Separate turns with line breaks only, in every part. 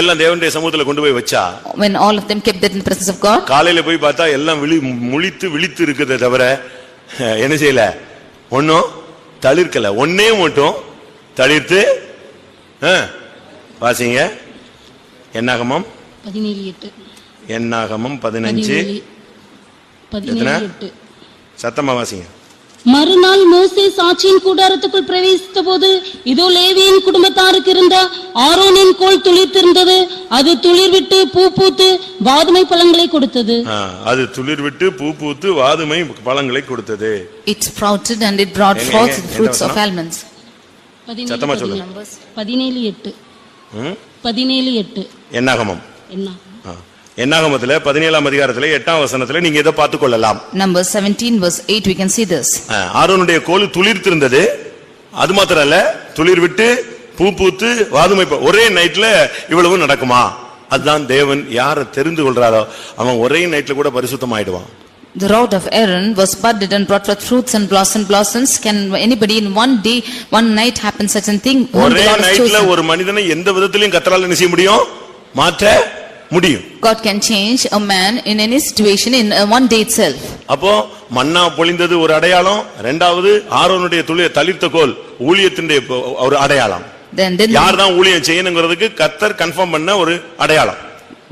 எல்லாம் தேவனுடைய சமூகத்துல கொண்டு போய் வச்சா
When all of them kept that in the presence of God,
காலையில போய் பார்த்தா எல்லாம் விழி முழித்து விழித்து இருக்குதே தவிர அஹ், என்ன செய்யல ஒன்றும் தளிர்க்கல ஒன்னே மட்டும் தளிர்த்து அஹ், வாசிங்க என்னாகமம்
பதினேழு எட்டு
என்னாகமம் பதினஞ்சு
பதினேழு பதினேழு
எத்தனை?
எட்டு
சத்தமா வாசிங்க
மறுநாள் மோசே சாட்சியின் கூடாரத்துக்குள் பிரவேசித்த போது இதோ லேவியின் குடும்பத்தாருக்கு இருந்த ஆரோனின் கோல் துளிர்த்திருந்தது அது துளிர் விட்டு பூ பூத்து வாதுமை பழங்களை கொடுத்தது
அஹ், அது துளிர் விட்டு பூ பூத்து வாதுமை பழங்களை கொடுத்தது
it sprouted and it brought
Enga,
forth
enga,
the fruits
enga
of almonds.
பதினேழு,
சத்தமா
பதினேழு.
சொல்லுங்க.
பதினேழு எட்டு
ம்?
பதினேழு எட்டு
என்னாகமம்
என்ன
ஆ. என்னாகமத்துல பதினேழாம் அதிகாரத்துல எட்டாம் வசனத்துல நீங்க இதை பார்த்துக் கொள்ளலாம்
Numbers 17 verse 8, we can see this.
ஆ, ஆரோனுடைய கோல் துளிர்த்திருந்தது அது மாத்திரம் அல்ல துளிர் விட்டு பூ பூத்து வாதுமை ப- ஒரே நைட்ல இவ்வளவு நடக்குமா அதுதான் தேவன் யாரை தெரிந்து கொள்றாரோ அவன் ஒரே நைட்ல கூட பரிசுத்தம் ஆயிடுவான்
The rod of Aaron was budded and brought forth fruits and blossom blossoms. Can anybody in one day, one night happen such a thing? Whom the
ஒரே
Lord has
நைட்ல
chosen.
ஒரு மனிதனை எந்த விதத்திலையும் கத்தரால என்ன செய்ய முடியும் மாற்ற முடியும்
God can change a man in any situation in uh, one day itself.
அப்போ மன்னா பொழிந்தது ஒரு அடையாளம் ரெண்டாவது ஆரோனுடைய துளிய தளிர்த்த கோல் ஊழியத்தினுடைய பொ- ஒரு அடையாளம்
Then, then
யார் தான் ஊழியம் செய்யணுங்கிறதுக்கு கத்தர் கன்ஃபார்ம் பண்ண ஒரு அடையாளம்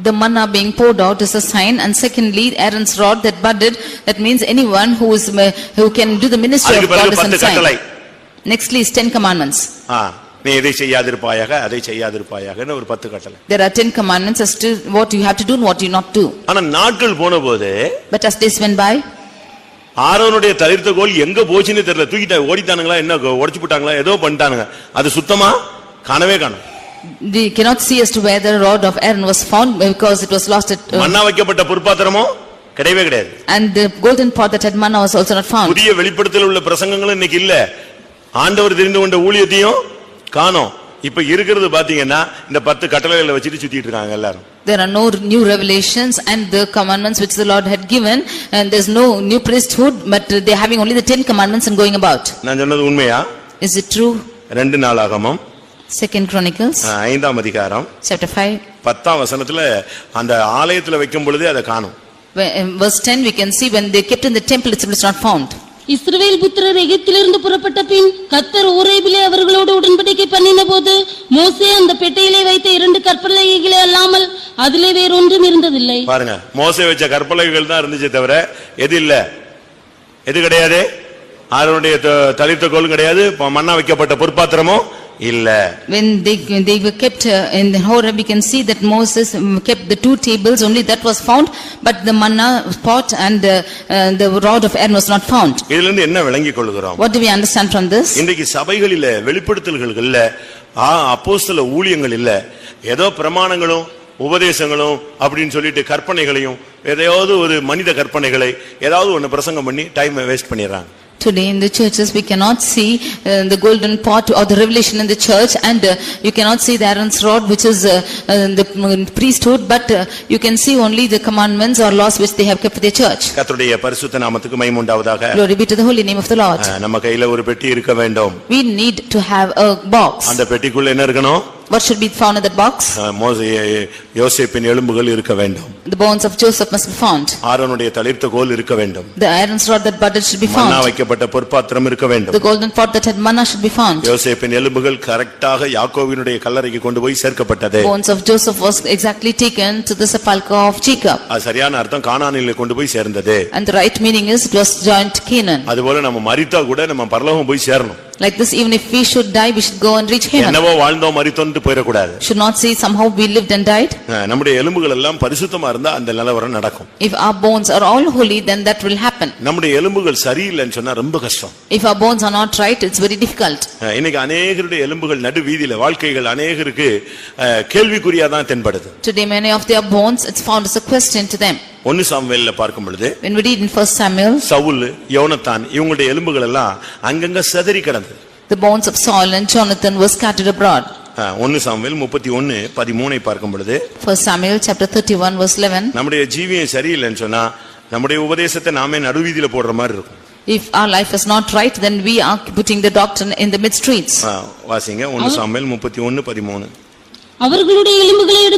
the manna being poured out is a sign and secondly Aaron's rod that budded, that means anyone who is, uh, who can do the ministry of
அதுக்கு
God
பிறகு
is a
பத்து கட்டளை
sign. Nextly is ten commandments.
ஆ, நீ இதை செய்யாதிருப்பாயாக அதை செய்யாதிருப்பாயாகன்னு ஒரு பத்து கட்டளை
There are ten commandments as to what you have to do and what you not do.
ஆனா நாட்கள் போன போது
But as days went by,
ஆரோனுடைய தளிர்த்த கோல் எங்க போச்சுன்னே தெரியல தூக்கிட்டா ஓடிட்டானுங்களா என்ன உடைச்சு போட்டாங்களா ஏதோ பண்ணிட்டானுங்க அது சுத்தமா காணவே காணும்
we cannot see as to where the rod of Aaron was found because it was lost at, uh,
மண்ணா வைக்கப்பட்ட பொற்பாத்திரமும் கிடையவே கிடையாது
and the golden pot that had manna was also not found.
புதிய வெளிப்படுத்தல் உள்ள பிரசங்கங்களும் இன்னைக்கு இல்ல ஆண்டவர் தெரிந்து கொண்ட ஊழியத்தையும் காணோம் இப்ப இருக்கிறது பாத்தீங்கன்னா இந்த பத்து கட்டளைகளை வச்சுட்டு சுத்திட்டு இருக்காங்க எல்லாரும்
There are no new revelations and the commandments which the Lord had given and there's no new priesthood but they're having only the ten commandments and going about.
நான் சொன்னது உண்மையா
Is it true?
ரெண்டு நாளாகமும்
Second Chronicles,
ஆஹ், ஐந்தாம் அதிகாரம்
chapter five,
பத்தாம் வசனத்துல அந்த ஆலயத்துல வைக்கும் பொழுதே அதை காணும்
where- in verse ten, we can see when they kept in the temple, it was not found.
இஸ்ரவேல் புத்திரர் எகிப்திலிருந்து புறப்பட்ட பின் கத்தர் ஊரேபிலே அவர்களோடு உடன்படிக்கை பண்ணின போது மோசே அந்த பெட்டையிலே வைத்த இரண்டு கற்பலகைகளே அல்லாமல் அதிலே வேறொன்றும் இருந்ததில்லை
பாருங்க மோசே வச்ச கற்பலகைகள் தான் இருந்துச்சே தவிர எது இல்ல எது கிடையாது ஆரோனுடைய த- தளிர்த்த கோலும் கிடையாது ப- மண்ணா வைக்கப்பட்ட பொற்பாத்திரமும் இல்ல
When they, they were kept uh, in the Horeb, we can see that Moses um, kept the two tables, only that was found, but the manna pot and uh, uh, the rod of Aaron was not found.
இதுல இருந்து என்ன விளங்கிக் கொள்கிறோம்
What do we understand from this?
இன்றைக்கு சபைகளில வெளிப்படுத்தல்கள் இல்ல ஆ, அப்போஸ்தல ஊழியங்கள் இல்ல ஏதோ பிரமாணங்களும் உபதேசங்களும் அப்படின்னு சொல்லிட்டு கற்பனைகளையும் எதையாவது ஒரு மனித கற்பனைகளை ஏதாவது ஒண்ணு பிரசங்கம் பண்ணி டைமை வேஸ்ட் பண்ணிடுறாங்க
Today in the churches, we cannot see uh, the golden pot or the revelation in the church and uh, you cannot see the Aaron's rod which is uh, uh, the mm, priesthood, but uh, you can see only the commandments or laws which they have kept for their church.
கர்த்தருடைய பரிசுத்த நாமத்துக்கு மைமுண்டாவதாக
Glory be to the holy name of the Lord.
அஹ், நம்ம கையில ஒரு பெட்டி இருக்க வேண்டும்
We need to have a box.
அந்த பெட்டிக்குள்ள என்ன இருக்கணும்
What should be found in that box?
அஹ், மோசே யோசேப்பின் எலும்புகள் இருக்க வேண்டும்
The bones of Joseph must be found.
ஆரோனுடைய தளிர்த்த கோல் இருக்க வேண்டும்
The iron's rod that budded should be
மண்ணா
found.
வைக்கப்பட்ட பொற்பாத்திரம் இருக்க வேண்டும்
The golden pot that had manna should be found.
யோசேப்பின் எலும்புகள் கரெக்டாக யாக்கோவினுடைய கல்லறைக்கு கொண்டு போய் சேர்க்கப்பட்டது
Bones of Joseph was exactly taken to the sepulchre of Jacob.
அது சரியான அர்த்தம் கானானில கொண்டு போய் சேர்ந்தது
And the right meaning is it was joined to Canaan.
அதுபோல நம்ம மரித்தா கூட நம்ம பரலோகம் போய் சேரணும்
Like this, even if we should die, we should go and reach heaven.
என்னவோ வாழ்ந்தோம் மரித்தோன்ட்டு போயிடக்கூடாது
Should not say somehow we lived and died.
அஹ், நம்முடைய எலும்புகள் எல்லாம் பரிசுத்தமா இருந்தா அந்த நிலவரம் நடக்கும்
If our bones are all holy, then that will happen.
நம்முடைய எலும்புகள் சரியில்லைன்னு சொன்னா ரொம்ப கஷ்டம்
If our bones are not right, it's very difficult.
அஹ் இன்னைக்கு அநேகருடைய எலும்புகள் நடு வீதியில வாழ்க்கைகள் அநேகருக்கு அஹ், கேள்விக்குறியா தான் தென்படுது
Today, many of their bones, it's found as a question to them.
ஒன்னு சாமுவேல்ல பார்க்கும் பொழுது
When we read in first Samuel,
Saul யோனத்தான் இவங்களுடைய எலும்புகள் எல்லாம் அங்கங்க செதறி கிடந்தது
the bones of Saul and Jonathan were scattered abroad.
அஹ், ஒன்னு சாமுவேல் முப்பத்தி ஒன்னு பதிமூணை பார்க்கும் பொழுது
First Samuel, chapter thirty-one, verse eleven,
நம்முடைய ஜீவியம் சரியில்லைன்னு சொன்னா நம்முடைய உபதேசத்தை நாமே நடுவீதியில போடுற மாதிரி இருக்கும்
if our life is not right, then we are putting the doctrine in the mid streets.
அஹ், வாசிங்க ஒன்னு சாமுவேல் முப்பத்தி ஒன்னு பதிமூணு
அவர்களுடைய எலும்புகளை எடுத்து